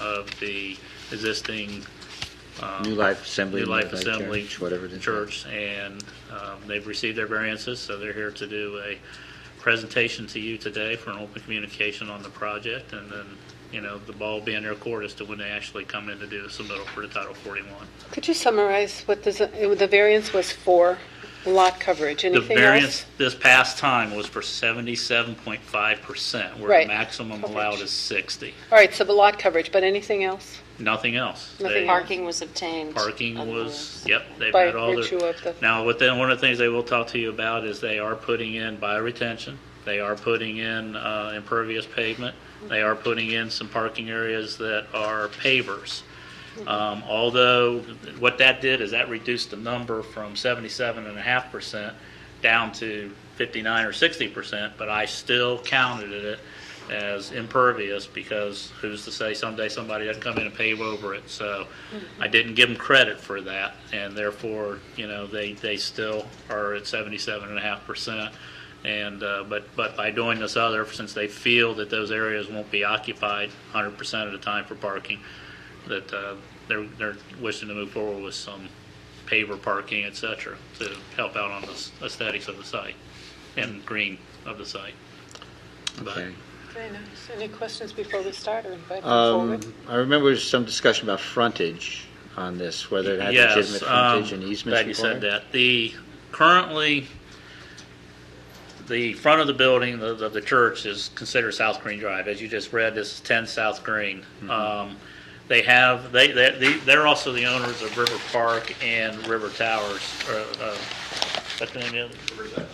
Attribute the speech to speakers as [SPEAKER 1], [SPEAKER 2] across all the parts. [SPEAKER 1] of the existing. um,
[SPEAKER 2] New Life Assembly.
[SPEAKER 1] New Life Assembly.
[SPEAKER 2] Church, Whatever it is.
[SPEAKER 1] Church, and um, they've received their variances, so they're here to do a presentation to you today for an open communication on the project, and then, you know, the ball being their court as to when they actually come in to do the submittal for the Title 41.
[SPEAKER 3] Could you summarize what the, z- the variance was for lot coverage?
[SPEAKER 1] The
[SPEAKER 3] Anything
[SPEAKER 1] variance
[SPEAKER 3] else?
[SPEAKER 1] this past time was for 77.5%, where
[SPEAKER 3] Right.
[SPEAKER 1] the maximum
[SPEAKER 3] Coverage.
[SPEAKER 1] allowed is 60.
[SPEAKER 3] All right, so the lot coverage, but anything else?
[SPEAKER 1] Nothing else.
[SPEAKER 3] Nothing
[SPEAKER 1] They-
[SPEAKER 3] else.
[SPEAKER 4] Parking was obtained.
[SPEAKER 1] Parking was, yep, they've
[SPEAKER 3] um, By
[SPEAKER 1] had all their.
[SPEAKER 3] virtue of the-
[SPEAKER 1] Now, what they, one of the things they will talk to you about is they are putting in bioretention, they are putting in uh, impervious pavement, they are putting in some parking areas that are pavers. Um, Although, what that did is that reduced the number from 77.5% down to 59 or 60%, but I still counted it as impervious because who's to say someday somebody doesn't come in and pave over it? So I didn't give them credit for that, and therefore, you know, they, they still are at 77.5%. And, uh, but, but by doing this other, since they feel that those areas won't be occupied 100% of the time for parking, that uh, they're, they're wishing to move forward with some paver parking, et cetera, to help out on the s- aesthetics of the site and green of the site. But
[SPEAKER 2] Okay.
[SPEAKER 3] Very nice. Any questions before we start or invite
[SPEAKER 2] Um, I remember there was some discussion about frontage on this, whether it had
[SPEAKER 1] Yes,
[SPEAKER 2] legitimate
[SPEAKER 1] um,
[SPEAKER 2] frontage and easements
[SPEAKER 1] Glad you said
[SPEAKER 2] required.
[SPEAKER 1] that. The, currently, the front of the building of of the church is considered South Green Drive. As you just read, this is 10 South Green.
[SPEAKER 2] Mm-hmm.
[SPEAKER 1] Um, They have, they, they- they- they're also the owners of River Park and River Towers, or, uh, what's the name of it?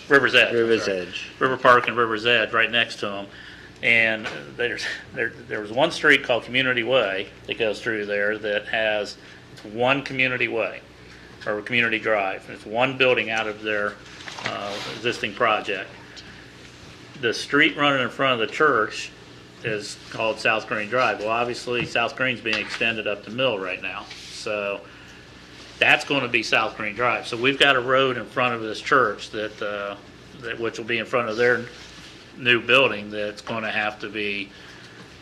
[SPEAKER 1] River's Edge. I'm
[SPEAKER 2] River's
[SPEAKER 1] sorry.
[SPEAKER 2] Edge.
[SPEAKER 1] River Park and River's Edge, right next to them. And there's, there, there was one street called Community Way that goes through there that has it's one community way or a community drive. It's one building out of their uh, existing project. The street running in front of the church is called South Green Drive. Well, obviously, South Green's being extended up to Mill right now. So that's going to be South Green Drive. So we've got a road in front of this church that, uh, that, which will be in front of their new building that's going to have to be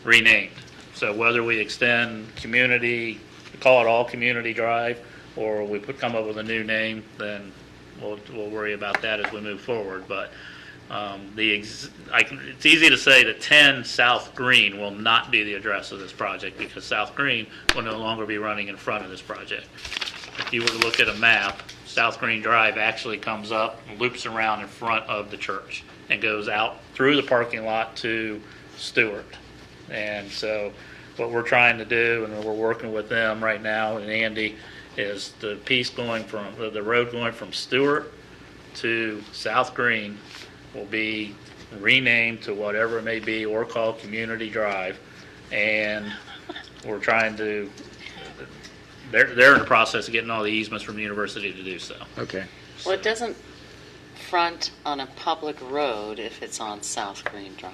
[SPEAKER 1] renamed. So whether we extend community, call it all Community Drive, or we put, come up with a new name, then we'll, we'll worry about that as we move forward. But, um, the, ex- I can, it's easy to say that ten South Green will not be the address of this project because South Green will no longer be running in front of this project if you were to look at a map, South Green Drive actually comes up, and loops around in front of the church, and goes out through the parking lot to Stewart. And so, what we're trying to do, and we're working with them right now, and Andy, is the piece going from, the- the road going from Stewart to South Green will be renamed to whatever it may be, or called Community Drive. And we're trying to they're, they're in the process of getting all the easements from the university to do so.
[SPEAKER 2] Okay.
[SPEAKER 4] Well, it doesn't front on a public road if it's on South Green Drive.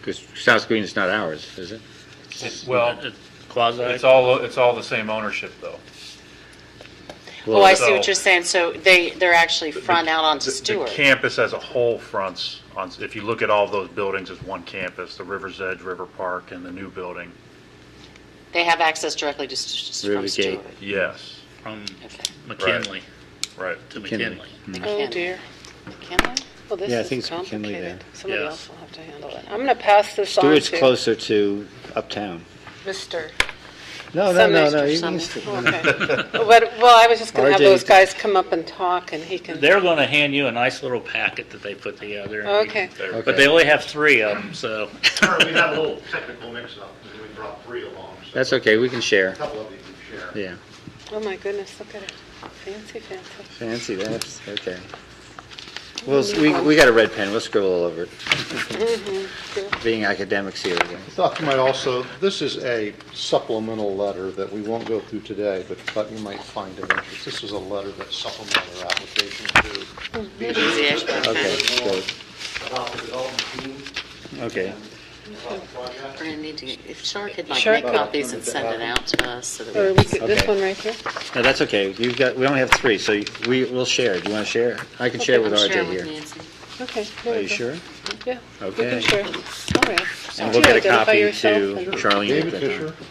[SPEAKER 2] Because South Green is not ours, is it?
[SPEAKER 5] Well,
[SPEAKER 1] It's Quasi.
[SPEAKER 5] it's all, it's all the same ownership, though.
[SPEAKER 4] Oh, I see
[SPEAKER 5] so-
[SPEAKER 4] what you're saying. So they, they're actually front out
[SPEAKER 5] The-
[SPEAKER 4] onto
[SPEAKER 5] the
[SPEAKER 4] Stewart.
[SPEAKER 5] campus as a whole fronts on, if you look at all those buildings as one campus, the River's Edge, River Park, and the new building,
[SPEAKER 4] They have access directly to, Stu- Stu-
[SPEAKER 2] River
[SPEAKER 4] from Stewart.
[SPEAKER 5] yes,
[SPEAKER 1] From
[SPEAKER 4] Okay.
[SPEAKER 1] McKinley
[SPEAKER 5] right.
[SPEAKER 1] to
[SPEAKER 2] McKinley.
[SPEAKER 1] McKinley.
[SPEAKER 3] Oh,
[SPEAKER 4] McKinley.
[SPEAKER 3] dear.
[SPEAKER 4] McKinley?
[SPEAKER 3] Well, this
[SPEAKER 2] Yeah, I
[SPEAKER 3] is
[SPEAKER 2] think it's McKinley there.
[SPEAKER 3] complicated. Somebody
[SPEAKER 1] Yes.
[SPEAKER 3] else will have to handle it. I'm going to pass this on
[SPEAKER 2] Stewart's
[SPEAKER 3] to
[SPEAKER 2] closer to uptown.
[SPEAKER 3] Mr.
[SPEAKER 2] No, no,
[SPEAKER 3] Some
[SPEAKER 2] no,
[SPEAKER 3] Mr.
[SPEAKER 2] no. you
[SPEAKER 4] some
[SPEAKER 2] can
[SPEAKER 4] Mr.
[SPEAKER 2] stick-
[SPEAKER 3] Okay. But, well, I was just going to have
[SPEAKER 2] RJ.
[SPEAKER 3] those guys come up and talk and he can,
[SPEAKER 1] They're going to hand you a nice little packet that they put together. and
[SPEAKER 3] Okay.
[SPEAKER 1] you-
[SPEAKER 2] Okay.
[SPEAKER 1] But they only have three of them, so.
[SPEAKER 6] Sorry, we had a little technical mix-up, and we brought three along, so
[SPEAKER 2] That's okay, we can
[SPEAKER 6] a
[SPEAKER 2] share.
[SPEAKER 6] couple of you can share.
[SPEAKER 2] Yeah,
[SPEAKER 3] oh my goodness, look at it. Fancy, fancy.
[SPEAKER 2] fancy, that's, okay. Well, s- we, we got a red pen, we'll scribble all over it. Being academics here, I guess.
[SPEAKER 7] Thought you might also, this is a supplemental letter that we won't go through today, but thought you might find of interest. This is a letter that supplemented our application to
[SPEAKER 4] Easy Ashburn
[SPEAKER 2] Okay,
[SPEAKER 4] County.
[SPEAKER 2] so,
[SPEAKER 6] About the development team,
[SPEAKER 2] okay.
[SPEAKER 6] about the project.
[SPEAKER 4] We're gonna need to, get- if Shar could like
[SPEAKER 3] Sure.
[SPEAKER 4] make copies and send it out to us so
[SPEAKER 3] Or
[SPEAKER 4] that
[SPEAKER 3] we could, this
[SPEAKER 2] Okay.
[SPEAKER 3] one right here?
[SPEAKER 2] No, that's okay, you've got, we only have three, so you- we, we'll share. Do you want to share? I can share
[SPEAKER 4] we
[SPEAKER 2] with
[SPEAKER 4] can share
[SPEAKER 2] RJ
[SPEAKER 4] with
[SPEAKER 2] here.
[SPEAKER 4] Nancy.
[SPEAKER 3] Okay. there
[SPEAKER 2] Are
[SPEAKER 3] we
[SPEAKER 2] you
[SPEAKER 3] go.
[SPEAKER 2] sure?
[SPEAKER 3] Yeah. we
[SPEAKER 2] Okay.
[SPEAKER 3] can share. All right.
[SPEAKER 2] And
[SPEAKER 3] Do
[SPEAKER 2] we'll get a
[SPEAKER 3] identify
[SPEAKER 2] copy
[SPEAKER 3] yourself
[SPEAKER 2] to
[SPEAKER 3] and-
[SPEAKER 2] Charlene. at
[SPEAKER 7] David
[SPEAKER 2] that time.
[SPEAKER 7] Fisher,